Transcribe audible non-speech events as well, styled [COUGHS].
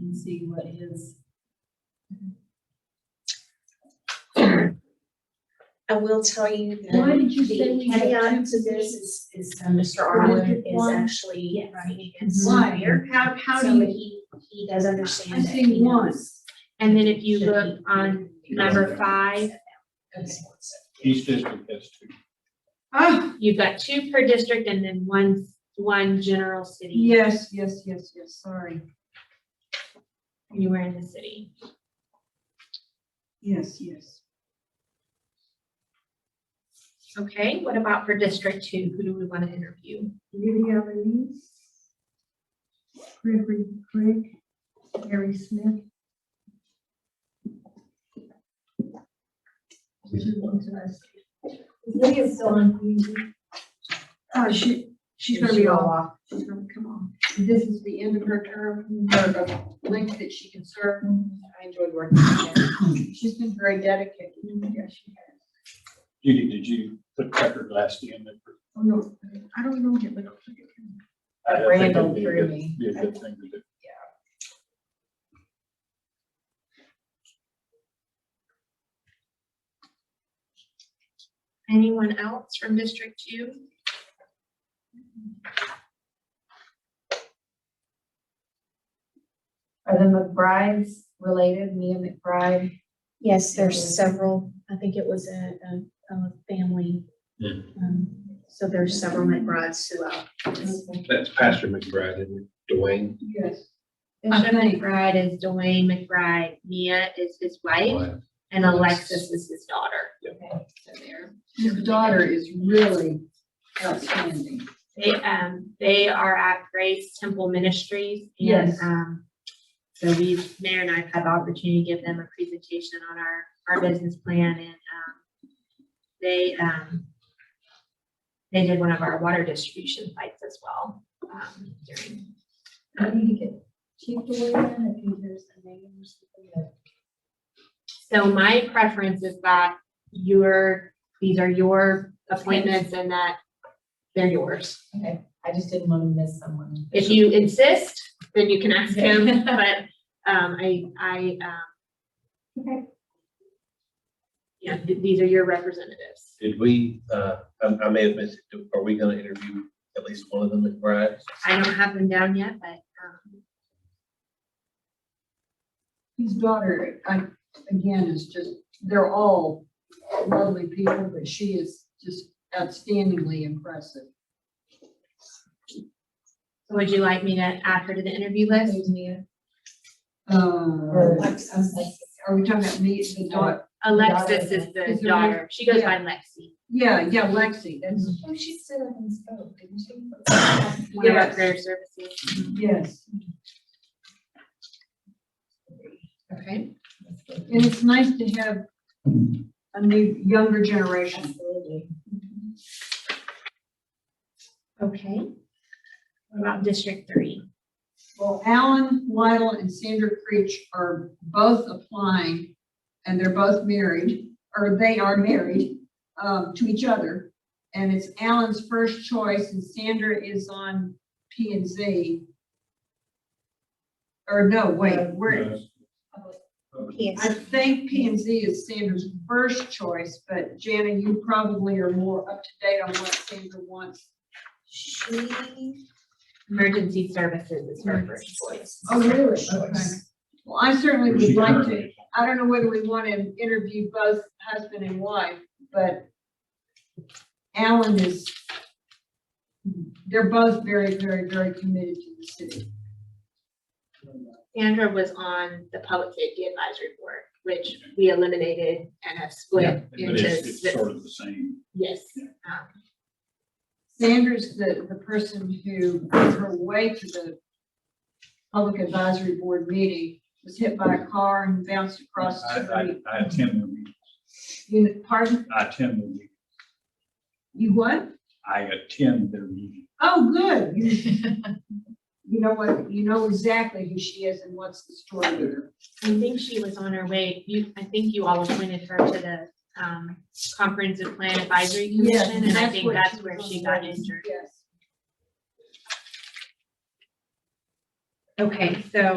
and see what his. I will tell you that. Why did you the say we had caveat two to this is, is uh, Mr. Arlen district is one? actually Yes. running Mm-hmm. against. Why? fire. How, how So do you, he, he does I understand that see he one. knows. and then if you Should look he- on number five, Okay. Each district has two. Ah, you've got two per district and then one, one general city yes, yes, yes, yes, sorry. anywhere in the city. Yes, yes. Okay, what about for district two? Who do we want to interview? Lydia Denise, Gregory Craig, Harry Smith. Lydia's still on mute. Uh, she, she's gonna be all off, she's gonna come off. This is the end of her term, her length that she can serve. I enjoyed working [COUGHS] with her. She's been very dedicated. Yes, she has. Judy, did you put Tucker Glassy in there? Oh, no, I don't know him, but. I think that'd Randall be a threw good- me. Be a good thing to do. Anyone else from district two? Are the McBrides related, Mia McBride? Yes, there's several, I think it was a, a, a family. Yeah. Um, So there's several Mm-hmm. McBrides throughout. That's Pastor McBride, isn't it? Dwayne. Yes. Bishop Okay. McBride is Dwayne McBride, Mia is his wife, and Alexis is his daughter. His daughter is really outstanding. They, um, they are at Grace Temple Ministries. and Yes. Um, so we, Mayor and I have had the opportunity to give them a presentation on our, our business plan and, um, they, um, they did one of our water distribution sites as well. um, during- I need to get Chief to weigh in if there's a name or something. So my preference is that your, these are your appointments and that they're yours. I just didn't want to miss someone. If you insist, then you can ask [LAUGHS] him, but, um, I, I, um. Okay. Yeah, th- these are your representatives. Did we, uh, I, I may have missed it, are we gonna interview at least one of the McBrides? I don't have them down yet, but, um, His daughter, I, again, is just, they're all lovely people, but she is just outstandingly impressive. would you like me to add her to the interview list? There's Mia. Uh, are we talking about me, the daughter? Alexis is the Is her daughter. She goes by yeah. Lexi. Yeah, yeah, Lexi, that's, Oh, she stood up and spoke, didn't she? One of our Yes. prayer services. yes. Okay. And it's nice to have a new, younger generation. Absolutely. Okay. What about District Three? Well, Alan Lytle and Sandra Creech are both applying, and they're both married, or they are married, um, to each other. And it's Alan's first choice, and Sandra is on P and Z. Or no, wait, we're, I think P and Z is Sandra's first choice, but Jana, you probably are more up to date on what Sandra wants. She. Emergency Services is her first choice. Oh, really? Okay. Well, I certainly would like to, She- I don't know whether we want to interview both husband and wife, but Alan is, they're both very, very, very committed to the city. Sandra was on the Public Safety Advisory Board, which we eliminated and have split But into. it's, it's the- sort of the same. Yes, um, Sandra's the, the person who, on her way to the public advisory board meeting, was hit by a car and bounced across I, the street. I, I attend the meetings. You, pardon, I attend the meetings. you what? I attend their meetings. Oh, good. [LAUGHS] You you know what, you know exactly who she is and what's the story with her. I think she was on her way, you, I think you all appointed her to the, um, Comprehensive Plan Advisory Yes, Commission, and I think what that's she where was she on got the- injured. Yes. Okay, so